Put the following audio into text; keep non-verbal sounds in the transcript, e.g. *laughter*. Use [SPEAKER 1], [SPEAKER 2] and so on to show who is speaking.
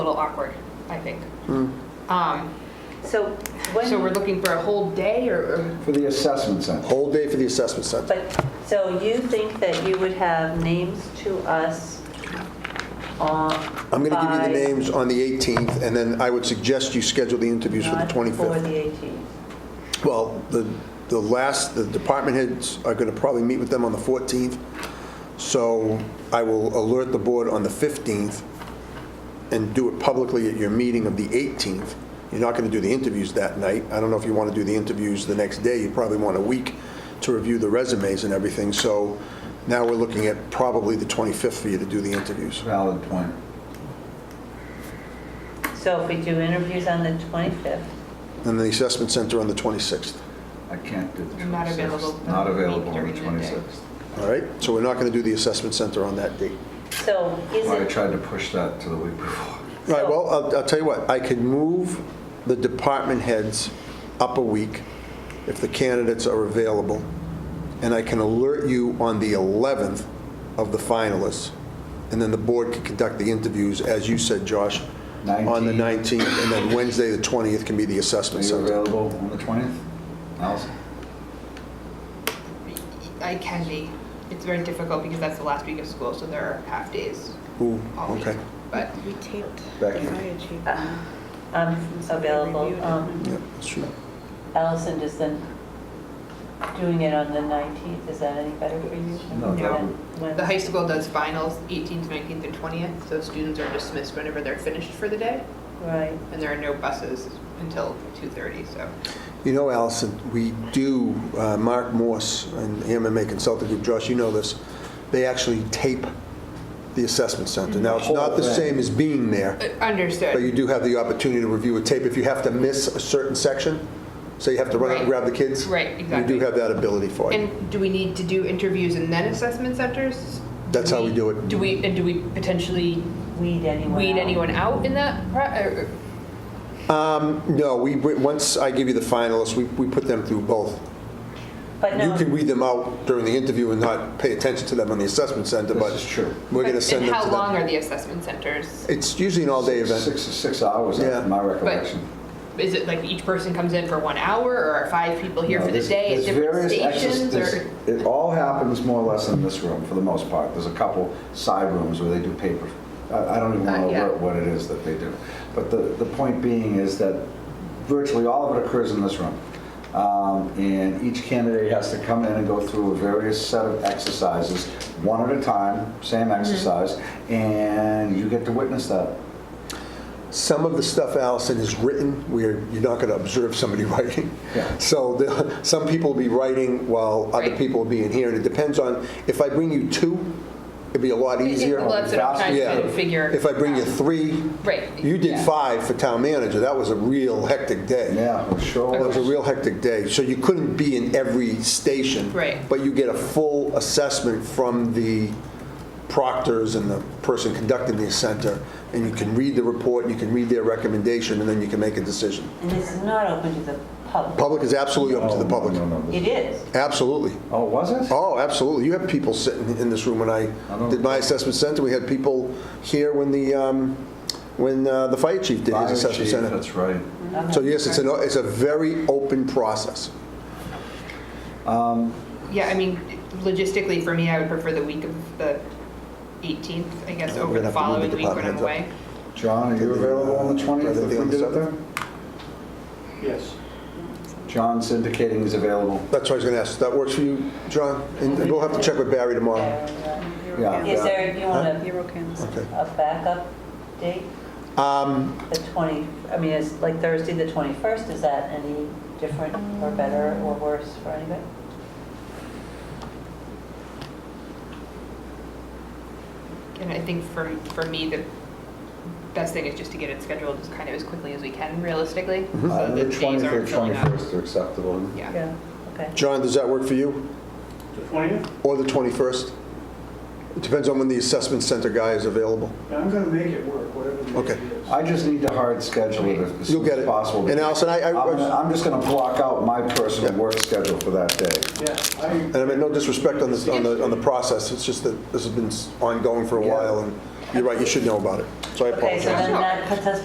[SPEAKER 1] little awkward, I think. Um,
[SPEAKER 2] So when,
[SPEAKER 1] So we're looking for a whole day or? or-
[SPEAKER 3] For the assessment center.
[SPEAKER 4] Whole day for the assessment center.
[SPEAKER 2] but, so you think that you would have names to us on?
[SPEAKER 4] I'm going to give you the
[SPEAKER 2] by-
[SPEAKER 4] names on the 18th, and then I would suggest you schedule the interviews for the
[SPEAKER 2] Not For the
[SPEAKER 4] 25th.
[SPEAKER 2] 18th.
[SPEAKER 4] Well, the, the last, the department heads are going to probably meet with them on the 14th, so I will alert the board on the 15th and do it publicly at your meeting of the 18th. You're not going to do the interviews that night. I don't know if you want to do the interviews the next day. You probably want a week to review the resumes and everything, so now we're looking at probably the 25th for you to do the interviews.
[SPEAKER 3] Valid point.
[SPEAKER 2] So if we do interviews on the 25th,
[SPEAKER 4] and the assessment center on the 26th.
[SPEAKER 3] I can't do the 26th.
[SPEAKER 1] You're not available
[SPEAKER 3] Not available on
[SPEAKER 1] during
[SPEAKER 3] the
[SPEAKER 1] the day.
[SPEAKER 3] 26th.
[SPEAKER 4] All right? So we're not going to do the assessment center on that date.
[SPEAKER 2] so is
[SPEAKER 3] Well, I
[SPEAKER 2] it,
[SPEAKER 3] tried to push that to the week
[SPEAKER 4] *laughs*
[SPEAKER 3] before.
[SPEAKER 4] All right, well, I'll- I'll tell you what, I could move the department heads up a week if the candidates are available, and I can alert you on the 11th of the finalists, and then the board can conduct the interviews, as you said, Josh, on the
[SPEAKER 3] 19th.
[SPEAKER 4] 19th, and then Wednesday, the 20th, can be the
[SPEAKER 3] Are
[SPEAKER 4] assessment
[SPEAKER 3] you
[SPEAKER 4] center.
[SPEAKER 3] available on the 20th? Allison?
[SPEAKER 1] I can be. It's very difficult because that's the last week of school, so there are half days
[SPEAKER 4] Ooh,
[SPEAKER 1] all week.
[SPEAKER 4] okay.
[SPEAKER 1] But
[SPEAKER 5] We taped the
[SPEAKER 3] Becky.
[SPEAKER 5] fire chief.
[SPEAKER 2] um, I'm available,
[SPEAKER 5] Reviewed it.
[SPEAKER 2] um,
[SPEAKER 4] Yeah, that's true.
[SPEAKER 2] Allison, does the, doing it on the 19th, is that any better for you?
[SPEAKER 3] No, that
[SPEAKER 2] When-
[SPEAKER 3] would-
[SPEAKER 2] when-
[SPEAKER 1] the high school does finals 18th, 19th, and 20th, so students are dismissed whenever they're finished for the day,
[SPEAKER 2] Right,
[SPEAKER 1] and there are no buses until 2:30, so.
[SPEAKER 4] You know, Allison, we do, uh, Mark Morse and MMA Consulting Group, Josh, you know this, they actually tape the assessment center. Now, it's not the
[SPEAKER 3] Whole thing.
[SPEAKER 4] same as being there,
[SPEAKER 1] Uh,
[SPEAKER 4] but you
[SPEAKER 1] Understood.
[SPEAKER 4] do have the opportunity to review a tape if you have to miss a certain section, so you have to run out and
[SPEAKER 1] Right.
[SPEAKER 4] grab the kids.
[SPEAKER 1] Right,
[SPEAKER 4] You
[SPEAKER 1] exactly.
[SPEAKER 4] do have that ability for you.
[SPEAKER 1] And do we need to do interviews and then assessment centers?
[SPEAKER 4] That's how we do it.
[SPEAKER 1] Do we, and do we potentially
[SPEAKER 2] weed anyone
[SPEAKER 1] weed
[SPEAKER 2] out.
[SPEAKER 1] anyone out in that? pro- or- or-
[SPEAKER 4] Um, No, we, we- once I give you the finalists, we we put them through both.
[SPEAKER 2] But
[SPEAKER 4] You
[SPEAKER 2] no,
[SPEAKER 4] can weed them out during the interview and not pay attention to them on the assessment center,
[SPEAKER 3] This
[SPEAKER 4] but
[SPEAKER 3] is true.
[SPEAKER 4] we're going to
[SPEAKER 1] And
[SPEAKER 4] send them to
[SPEAKER 1] how
[SPEAKER 4] them.
[SPEAKER 1] long are the assessment centers?
[SPEAKER 4] It's usually an all-day event.
[SPEAKER 3] Six, six hours, that's
[SPEAKER 4] Yeah.
[SPEAKER 3] my recollection.
[SPEAKER 1] Is it like each person comes in for one hour, or are five people here
[SPEAKER 3] No,
[SPEAKER 1] for the
[SPEAKER 3] there's-
[SPEAKER 1] day at
[SPEAKER 3] there's
[SPEAKER 1] different
[SPEAKER 3] various exerc-
[SPEAKER 1] stations?
[SPEAKER 3] there's-
[SPEAKER 1] Or
[SPEAKER 3] It all happens more or less in this room, for the most part. There's a couple side rooms where they do paper. I I don't even
[SPEAKER 1] Uh,
[SPEAKER 3] know
[SPEAKER 1] yeah.
[SPEAKER 3] what- what it is that they do. But the, the point being is that virtually all of it occurs in this room. Um, And each candidate has to come in and go through a various set of exercises, one at a time, same
[SPEAKER 1] Mm-hmm.
[SPEAKER 3] exercise, and you get to witness that.
[SPEAKER 4] Some of the stuff Allison has written, where you're not going to observe somebody *laughs* writing.
[SPEAKER 3] Yeah.
[SPEAKER 4] So the- some people will be writing while other
[SPEAKER 1] Right.
[SPEAKER 4] people will be in here, and it depends on, if I bring you two, it'd be a lot easier.
[SPEAKER 1] Well, that's what I'm trying
[SPEAKER 4] Yeah.
[SPEAKER 1] to figure.
[SPEAKER 4] If I bring you
[SPEAKER 1] out.
[SPEAKER 4] three,
[SPEAKER 1] Right.
[SPEAKER 4] you did
[SPEAKER 1] yeah.
[SPEAKER 4] five for town manager, that was a real hectic day.
[SPEAKER 3] Yeah, it sure.
[SPEAKER 4] It Oh, was a
[SPEAKER 3] is.
[SPEAKER 4] real hectic day, so you couldn't be in every station.
[SPEAKER 1] Right.
[SPEAKER 4] But you get a full assessment from the proctors and the person conducting the center, and you can read the report, you can read their recommendation, and then you can make a decision.
[SPEAKER 2] and this is not open to the public.
[SPEAKER 4] Public is absolutely open to the
[SPEAKER 3] No,
[SPEAKER 4] public.
[SPEAKER 3] Oh, no, no,
[SPEAKER 2] It
[SPEAKER 3] this-
[SPEAKER 2] is.
[SPEAKER 4] Absolutely.
[SPEAKER 3] Oh, was it?
[SPEAKER 4] Oh, absolutely. You had people sitting in this room when I
[SPEAKER 3] I don't-
[SPEAKER 4] did my assessment center. We had people here when the, um, when uh, the fire chief did
[SPEAKER 3] Fire
[SPEAKER 4] his assessment
[SPEAKER 3] chief,
[SPEAKER 4] center.
[SPEAKER 3] That's right.
[SPEAKER 2] I'm
[SPEAKER 4] So yes, it's an, it's a very open process.
[SPEAKER 1] Yeah, I mean, logistically, for me, I would prefer the week of the 18th, I guess,
[SPEAKER 4] We're
[SPEAKER 1] over the
[SPEAKER 4] gonna have to move
[SPEAKER 1] following
[SPEAKER 4] the
[SPEAKER 1] week when I'm
[SPEAKER 4] department
[SPEAKER 1] away.
[SPEAKER 4] heads
[SPEAKER 3] John, are you available on the 20th if we did it there?
[SPEAKER 6] Yes.
[SPEAKER 3] John's indicating he's available.
[SPEAKER 4] That's what I was going to ask. That works for you, John? And we'll have to check with Barry tomorrow.
[SPEAKER 3] Yeah.
[SPEAKER 2] Is there, you want a,
[SPEAKER 5] Hero cams.
[SPEAKER 4] Okay.
[SPEAKER 2] a backup date?
[SPEAKER 4] Um,
[SPEAKER 2] The 20, I mean, it's like Thursday, the 21st, is that any different or better or worse for anybody?
[SPEAKER 1] And I think for, for me, the best thing is just to get it scheduled as kind of as quickly as we can, realistically.
[SPEAKER 4] Mm-hmm.
[SPEAKER 1] so that
[SPEAKER 3] Uh,
[SPEAKER 4] Uh,
[SPEAKER 3] The
[SPEAKER 1] days aren't
[SPEAKER 3] 20th,
[SPEAKER 1] filling up.
[SPEAKER 3] 21st are acceptable.
[SPEAKER 1] Yeah.
[SPEAKER 2] Yeah. Okay.
[SPEAKER 4] John, does that work for you?
[SPEAKER 6] The 20th?
[SPEAKER 4] Or the 21st? It depends on when the assessment center guy is available.
[SPEAKER 6] Yeah, I'm going to make it work, whatever the
[SPEAKER 4] Okay.
[SPEAKER 6] date is.
[SPEAKER 3] I just need to hard schedule it as- as
[SPEAKER 4] You'll
[SPEAKER 3] soon
[SPEAKER 4] get
[SPEAKER 3] as
[SPEAKER 4] it.
[SPEAKER 3] possible.
[SPEAKER 4] And Allison, I,
[SPEAKER 3] I'm
[SPEAKER 4] I-
[SPEAKER 3] gonna- I'm just going to block out my personal
[SPEAKER 4] Yeah.
[SPEAKER 3] work schedule for that day.
[SPEAKER 6] Yeah,
[SPEAKER 4] and
[SPEAKER 6] I,
[SPEAKER 4] I mean, no disrespect on this, on the, on the process. It's just that this has been ongoing for a while, and you're right, you should know about it. So I
[SPEAKER 2] Okay, so
[SPEAKER 4] apologize.
[SPEAKER 2] then that puts us